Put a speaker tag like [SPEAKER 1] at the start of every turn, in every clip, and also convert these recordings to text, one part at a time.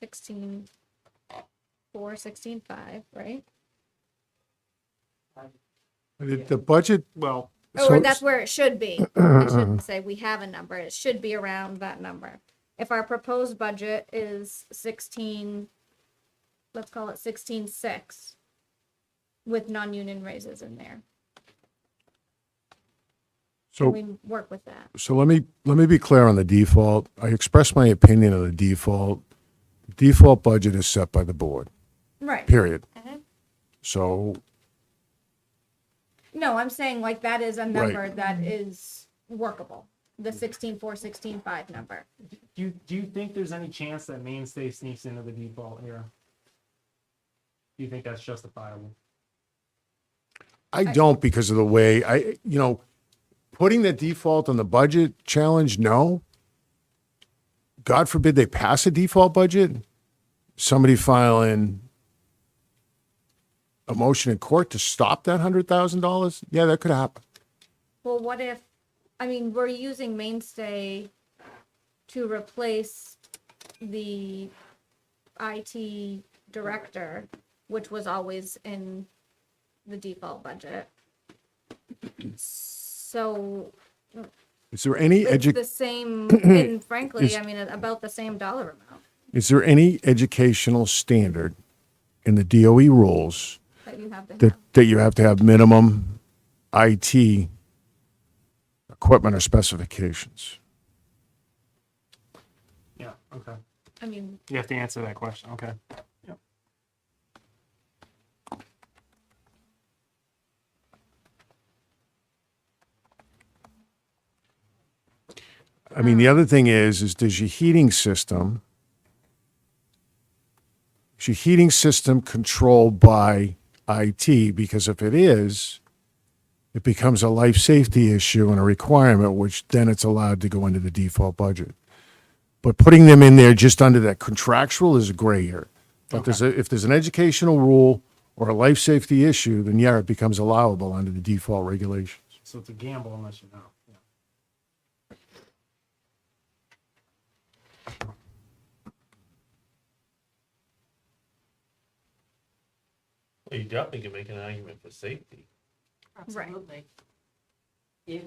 [SPEAKER 1] sixteen four, sixteen five, right?
[SPEAKER 2] The, the budget,
[SPEAKER 3] Well,
[SPEAKER 1] Oh, Or
[SPEAKER 2] So-
[SPEAKER 1] that's where it should be. I shouldn't say we have a number. It should be around that number. If our proposed budget is sixteen, let's call it sixteen six with non-union raises in there.
[SPEAKER 2] so.
[SPEAKER 1] We work with that.
[SPEAKER 2] So let me, let me be clear on the default. I expressed my opinion on the default. Default budget is set by the board,
[SPEAKER 1] Right.
[SPEAKER 2] period.
[SPEAKER 1] Mhm.
[SPEAKER 2] So,
[SPEAKER 1] No, I'm saying like that is a number
[SPEAKER 2] Right.
[SPEAKER 1] that is workable. The sixteen four, sixteen five number.
[SPEAKER 3] do you, do you think there's any chance that mainstay sneaks into the deep ball here? Do you think that's justifiable?
[SPEAKER 2] I don't because of the way I, you know, putting the default on the budget challenge, no. God forbid they pass a default budget, somebody filing a motion in court to stop that hundred thousand dollars. Yeah, that could happen.
[SPEAKER 1] Well, what if, I mean, we're using mainstay to replace the IT director, which was always in the default budget. So
[SPEAKER 2] Is there any
[SPEAKER 1] it's
[SPEAKER 2] education?
[SPEAKER 1] the same, and
[SPEAKER 2] Is-
[SPEAKER 1] frankly, I mean, about the same dollar amount
[SPEAKER 2] Is there any educational standard in the DOE rules
[SPEAKER 1] that you have to
[SPEAKER 2] that,
[SPEAKER 1] have.
[SPEAKER 2] that you have to have minimum IT equipment or specifications?
[SPEAKER 3] Yeah, okay.
[SPEAKER 1] I mean,
[SPEAKER 3] You have to answer that question, okay.
[SPEAKER 2] I mean, the other thing is, is does your heating system, is your heating system controlled by IT? Because if it is, it becomes a life safety issue and a requirement, which then it's allowed to go into the default budget. But putting them in there just under that contractual is a gray area. But there's a, if there's an educational rule or a life safety issue, then yeah, it becomes allowable under the default regulations.
[SPEAKER 3] So it's a gamble unless you know. Yeah.
[SPEAKER 4] Well, you definitely can make an argument for safety.
[SPEAKER 1] Right.
[SPEAKER 5] Absolutely. If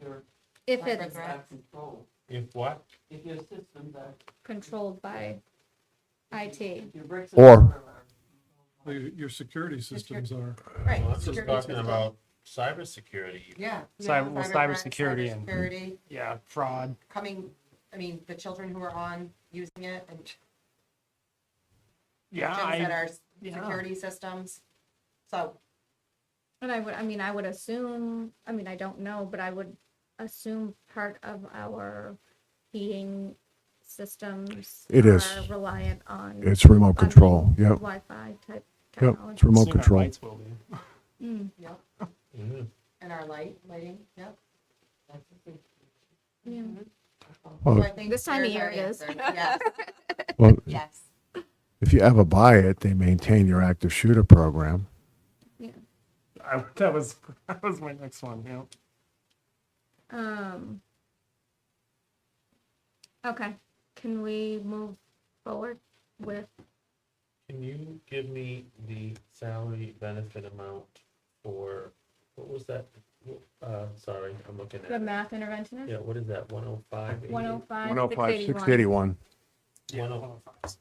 [SPEAKER 5] your
[SPEAKER 1] if it's
[SPEAKER 5] records are controlled,
[SPEAKER 4] If what?
[SPEAKER 5] if your systems are.
[SPEAKER 1] controlled by IT.
[SPEAKER 5] if your bricks
[SPEAKER 2] Or-
[SPEAKER 5] and mortar are-
[SPEAKER 6] Your, your security systems are.
[SPEAKER 1] Right.
[SPEAKER 4] Well, I'm just
[SPEAKER 5] Security
[SPEAKER 4] talking
[SPEAKER 5] system.
[SPEAKER 4] about cybersecurity.
[SPEAKER 5] Yeah.
[SPEAKER 3] Cyber- well,
[SPEAKER 5] cyber
[SPEAKER 3] cybersecurity and-
[SPEAKER 5] Security,
[SPEAKER 3] Yeah, fraud.
[SPEAKER 5] coming, I mean, the children who are on using it and
[SPEAKER 3] Yeah,
[SPEAKER 5] gyms that
[SPEAKER 3] I,
[SPEAKER 5] are s-
[SPEAKER 3] yeah.
[SPEAKER 5] security systems. So
[SPEAKER 1] And I would, I mean, I would assume, I mean, I don't know, but I would assume part of our heating systems.
[SPEAKER 2] It is.
[SPEAKER 1] are Reliant on.
[SPEAKER 2] It's remote
[SPEAKER 1] on
[SPEAKER 2] control. Yep.
[SPEAKER 1] Wi-Fi type
[SPEAKER 2] Yep.
[SPEAKER 1] technology.
[SPEAKER 2] It's remote
[SPEAKER 3] Soon our
[SPEAKER 2] control.
[SPEAKER 3] lights will be.
[SPEAKER 1] Mm,
[SPEAKER 5] Yep.
[SPEAKER 4] Mhm.
[SPEAKER 5] and our light, lighting, yep. That's a good-
[SPEAKER 1] yeah.
[SPEAKER 2] Well,
[SPEAKER 5] So I think
[SPEAKER 1] This time of
[SPEAKER 5] there's our
[SPEAKER 1] year it is.
[SPEAKER 5] answer. Yes,
[SPEAKER 2] Well,
[SPEAKER 5] yes.
[SPEAKER 2] If you ever buy it, they maintain your active shooter program.
[SPEAKER 3] I, that was, that was my next one, yeah.
[SPEAKER 1] Um. Okay, can we move forward with,
[SPEAKER 4] Can you give me the salary benefit amount for, what was that? Uh, sorry, I'm looking
[SPEAKER 1] the
[SPEAKER 4] at it.
[SPEAKER 1] math interventionist?
[SPEAKER 4] Yeah, what is that, one oh five?
[SPEAKER 1] One oh five, six
[SPEAKER 2] 105,
[SPEAKER 1] eighty-one.
[SPEAKER 2] 681.
[SPEAKER 3] Yeah,
[SPEAKER 4] One oh-
[SPEAKER 3] 105.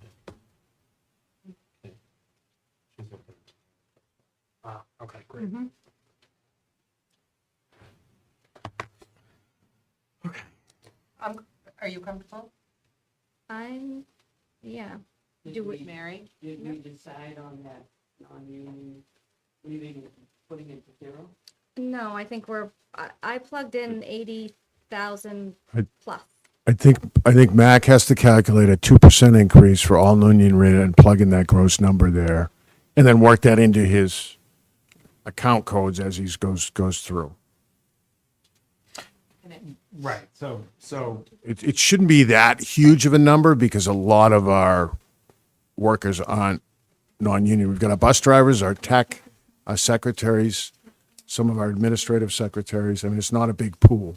[SPEAKER 3] Wow, Ah, okay, great.
[SPEAKER 5] Um, are you comfortable?
[SPEAKER 1] I'm, yeah,
[SPEAKER 5] Did
[SPEAKER 1] Do we-
[SPEAKER 5] we, Mary, did we decide on that, on you leaving, putting it to zero?
[SPEAKER 1] no, I think we're, I, I plugged in eighty thousand
[SPEAKER 2] I-
[SPEAKER 1] plus.
[SPEAKER 2] I think, I think MAC has to calculate a 2% increase for all non-union rate and plug in that gross number there and then work that into his account codes as he goes, goes through.
[SPEAKER 5] And it-
[SPEAKER 3] Right, so, so,
[SPEAKER 2] It, it shouldn't be that huge of a number because a lot of our workers aren't non-union. We've got our bus drivers, our tech, our secretaries, some of our administrative secretaries. I mean, it's not a big pool.